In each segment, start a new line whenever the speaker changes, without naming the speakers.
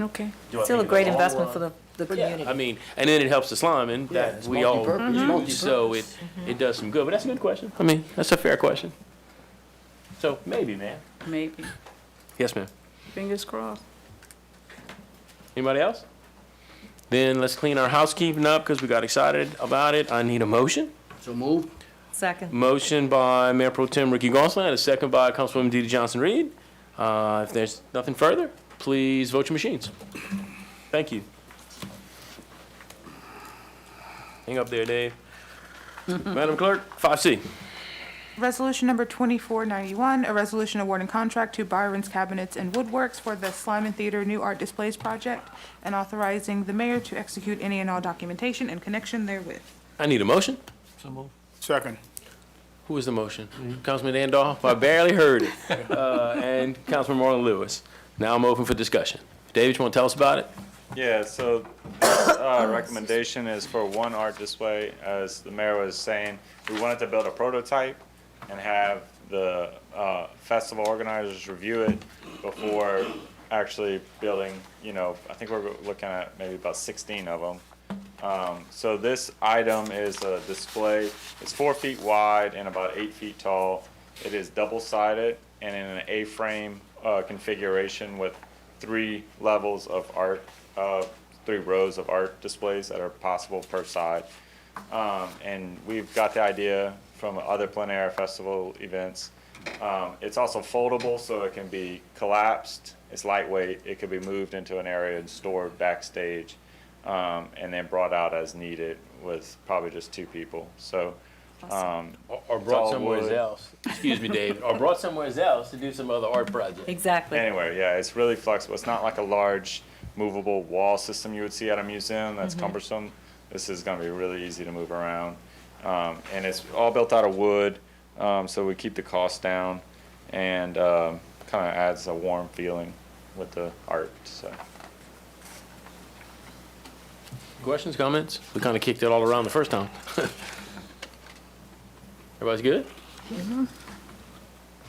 Okay.
Do I
Still a
think
great
in the long
investment
run-
for the, the
uh, Yeah,
community.
I mean, and then it helps the slum and
Yeah,
that
it's
we all
multi-purpose, it's
use, so it,
multi-purpose.
it does some good. But that's a good question. I mean, that's a fair question. So maybe, man.
Maybe.
Yes, ma'am.
Fingers crossed.
Anybody else? Then let's clean our housekeeping up because we got excited about it. I need a motion.
So move.
Second.
Motion by Mayor Pro Tem Ricky Gonsalas, and a second by Councilwoman DeeDee Johnson-Reed. Uh, If there's nothing further, please vote your machines. Thank you. Hang up there, Dave. Madam Clerk, 5C.
Resolution number 2491, a resolution awarding contract to Byron's Cabinets and Woodworks for the Slyman Theater New Art Displays Project and authorizing the mayor to execute any and all documentation in connection therewith.
I need a motion.
Second.
Who is the motion? Councilman Randolph? I barely heard it. Uh, And Councilman Marlon Lewis. Now I'm open for discussion. David, you want to tell us about it?
Yeah, so this uh, recommendation is for one art display. As the mayor was saying, we wanted to build a prototype and have the uh, festival organizers review it before actually building, you know, I think we're looking at maybe about 16 of them. Um, so this item is a display. It's four feet wide and about eight feet tall. It is double-sided and in an A-frame uh, configuration with three levels of art, uh, three rows of art displays that are possible per side. Um, and we've got the idea from other plein air festival events. Um, it's also foldable, so it can be collapsed. It's lightweight. It could be moved into an area and stored backstage um, and then brought out as needed with probably just two people. So, um,
Or
brought somewhere
else. Excuse me, David. Or brought somewhere else to do some other art project.
Exactly.
anyway, yeah, it's really flexible. It's not like a large movable wall system you would see at a museum that's cumbersome. This is going to be really easy to move around. Um, and it's all built out of wood, um, so we keep the cost down and um, kind of adds a warm feeling with the art. So.
Questions, comments? We kind of kicked it all around the first time. Everybody's good? Mm-hmm.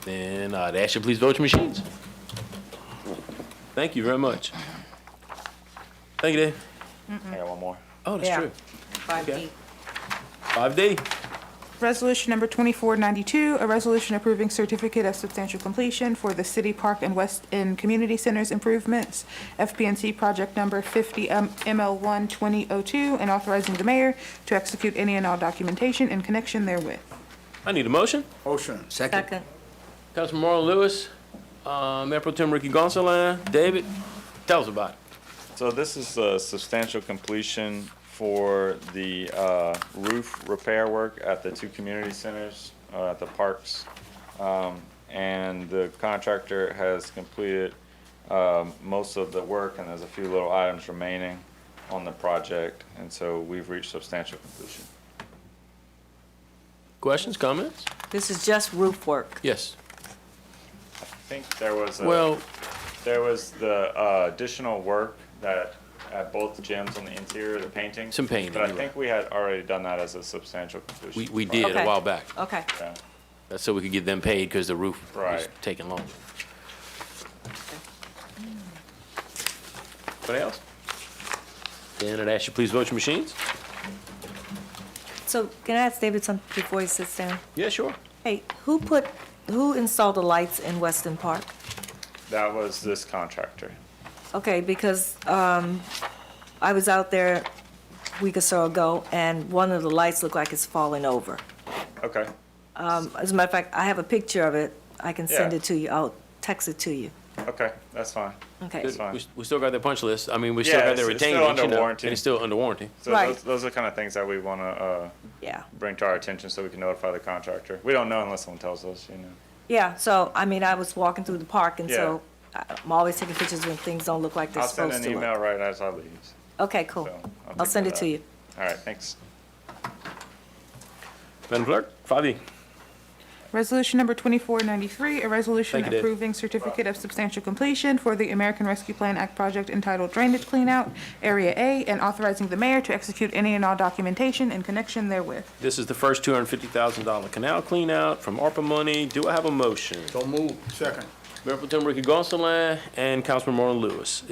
Then I'd ask you to please vote your machines. Thank you very much. Thank you, Dave.
I got one more.
Oh, that's
Yeah.
true.
Five D.
5D.
Resolution number 2492, a resolution approving certificate of substantial completion for the City Park and West End Community Centers improvements, FPNC project number 50 M- ML1 2002, and authorizing the mayor to execute any and all documentation in connection therewith.
I need a motion.
Ocean.
Second.
Second.
Councilman Marlon Lewis, uh, Mayor Pro Tem Ricky Gonsalas, David, tell us about it.
So this is the substantial completion for the uh, roof repair work at the two community centers, uh, at the parks. Um, And the contractor has completed um, most of the work, and there's a few little items remaining on the project. And so we've reached substantial completion.
Questions, comments?
This is just roof work.
Yes.
I think there was a.
Well,
There was the uh, additional work that, at both gyms on the interior, the painting.
Some painting,
But I
you're
think we had already done that as a substantial completion.
we, we did a
Okay.
while back.
Okay.
Yeah.
That's so we could get them paid because the roof was
Right.
taking long. Anybody else? Then I'd ask you please vote your machines.
So can I ask David something before he sits down?
Yeah, sure.
Hey, who put, who installed the lights in Weston Park?
That was this contractor.
Okay, because um, I was out there a week or so ago, and one of the lights looked like it's falling over.
Okay,
Um, As a matter of fact, I have a picture of it. I can send
Yeah.
it to you. I'll text it to you.
okay, that's fine.
Okay.
fine.
We, we still got their punch list. I mean, we still
Yeah,
got their
it's- it's still
retained,
under
you know, and
warranty.
it's still under warranty.
So
Right.
those, those are kind of things that we want to uh,
Yeah.
bring to our attention so we can notify the contractor. We don't know unless someone tells us, you know.
Yeah, so, I mean, I was walking through the park, and so I'm always taking pictures when things don't look like they're
I'll send
supposed
an
to
email
look.
right as I leave.
Okay, cool.
So I'll
I'll
take
send
that
it to
out.
you.
All right, thanks.
Madam Clerk, five E.
Resolution number 2493, a resolution
Thank you, Dave.
approving certificate of substantial completion for the American Rescue Plan Act project entitled Drainage Cleanout, Area A, and authorizing the mayor to execute any and all documentation in connection therewith.
This is the first two hundred and fifty thousand dollar canal clean out from ARPA money. Do I have a motion?
So move.
Second.
Mayor Pro Tem Ricky Gonsalas and Councilman Marlon Lewis.